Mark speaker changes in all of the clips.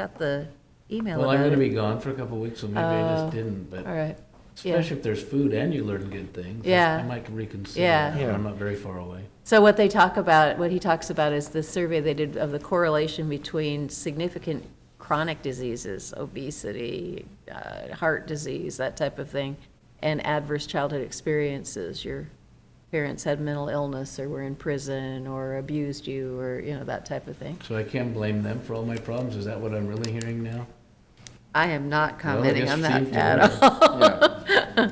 Speaker 1: got the email
Speaker 2: Well, I'm
Speaker 1: about
Speaker 2: gonna
Speaker 1: it.
Speaker 2: be gone for a couple of weeks, so maybe I
Speaker 1: Oh,
Speaker 2: just didn't,
Speaker 1: All
Speaker 2: but
Speaker 1: right, yeah.
Speaker 2: especially if there's food and you learn good things. I-
Speaker 1: Yeah.
Speaker 2: I might reconsider.
Speaker 1: Yeah.
Speaker 2: that.
Speaker 3: Yeah.
Speaker 2: I'm not very far away.
Speaker 1: so what they talk about, what he talks about is the survey they did of the correlation between significant chronic diseases, obesity, uh, heart disease, that type of thing, and adverse childhood experiences, your parents had mental illness, or were in prison, or abused you, or, you know, that type of thing.
Speaker 2: So I can't blame them for all my problems. Is that what I'm really hearing now?
Speaker 1: I am not
Speaker 2: Well, I
Speaker 1: commenting
Speaker 2: guess
Speaker 1: on
Speaker 2: it
Speaker 1: that
Speaker 2: seems to
Speaker 1: at
Speaker 2: work.
Speaker 1: all,
Speaker 3: Yeah,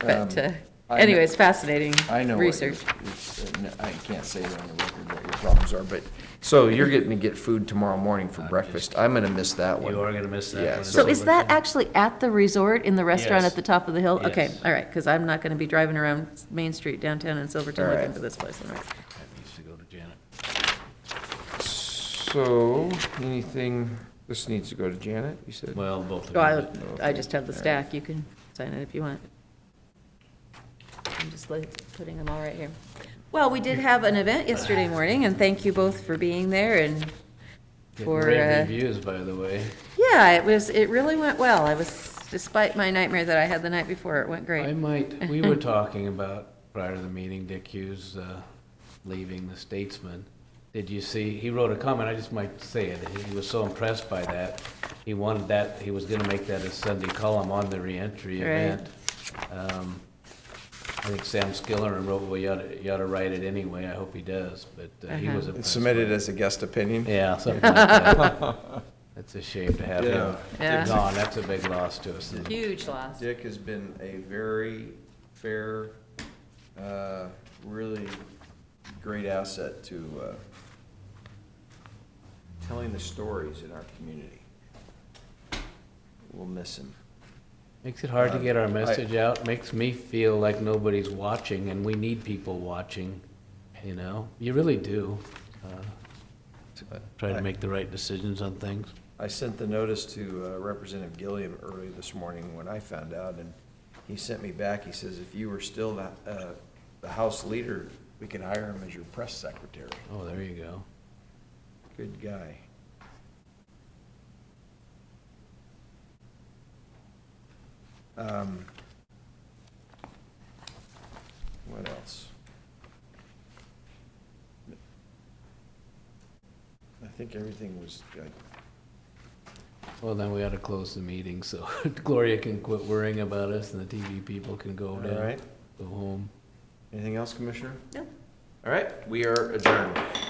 Speaker 1: but,
Speaker 3: um,
Speaker 1: uh,
Speaker 3: I kn-
Speaker 1: anyways, fascinating
Speaker 3: I know. what your-
Speaker 1: research.
Speaker 3: it's- uh, no, I can't say it on the record what your problems are, but, so you're getting to get food tomorrow morning for breakfast. I'm gonna miss that one.
Speaker 2: You are gonna miss that
Speaker 3: Yeah,
Speaker 2: one. It's
Speaker 1: So
Speaker 3: So-
Speaker 1: is
Speaker 2: over
Speaker 1: that
Speaker 2: there.
Speaker 1: actually at the resort, in the restaurant
Speaker 2: Yes.
Speaker 1: at the top of the hill? Okay,
Speaker 2: Yes.
Speaker 1: all right, because I'm not going to be driving around Main Street downtown in Silverton
Speaker 3: All
Speaker 1: looking
Speaker 3: right.
Speaker 1: for this place. All right.
Speaker 2: I used to go to Janet.
Speaker 3: So, anything, this needs to go to Janet, you said?
Speaker 2: Well, both
Speaker 1: So
Speaker 2: of you.
Speaker 1: I, I just have the stack, you can sign it if you want. I'm just like putting them all right here. Well, we did have an event yesterday morning, and thank you both for being there and
Speaker 2: Getting
Speaker 1: for,
Speaker 2: Rave
Speaker 1: uh,
Speaker 2: reviews, by the way.
Speaker 1: yeah, it was, it really went well. I was, despite my nightmare that I had the night before, it went
Speaker 2: I
Speaker 1: great.
Speaker 2: might, we were talking about, prior to the meeting, Dick Hughes uh, leaving the Statesman. Did you see, he wrote a comment, I just might say it, he was so impressed by that. He wanted that, he was gonna make that a Sunday column on the reentry
Speaker 1: Right.
Speaker 2: event. Um, I think Sam Skiller wrote, well, you oughta, you oughta write it anyway, I hope he does, but uh, he
Speaker 1: Uh-huh.
Speaker 2: was
Speaker 3: It's
Speaker 2: impressed.
Speaker 3: Submitted
Speaker 2: by it.
Speaker 3: as a guest opinion?
Speaker 2: Yeah, something like that. It's a shame to have him
Speaker 1: Yeah.
Speaker 2: gone, that's a big loss to us.
Speaker 1: Huge loss.
Speaker 3: Dick has been a very fair, uh, really great asset to, uh, telling the stories in our community. We'll miss him.
Speaker 2: Makes it hard to get our
Speaker 3: Um, I-
Speaker 2: message out, makes me feel like nobody's watching, and we need people watching, you know? You really do. uh, Try to make the right decisions on things.
Speaker 3: I sent the notice to uh, Representative Gilliam early this morning when I found out, and he sent me back, he says, if you were still the, uh, the House leader, we could hire him as your press secretary.
Speaker 2: Oh, there you go.
Speaker 3: Good guy. Um, What else? I think everything was, good.
Speaker 2: Well, then we ought to close the meeting, so Gloria can quit worrying about us, and the TV people can go
Speaker 3: all
Speaker 2: down,
Speaker 3: right.
Speaker 2: go home.
Speaker 3: Anything else, Commissioner?
Speaker 1: No.
Speaker 3: All right, we are adjourned.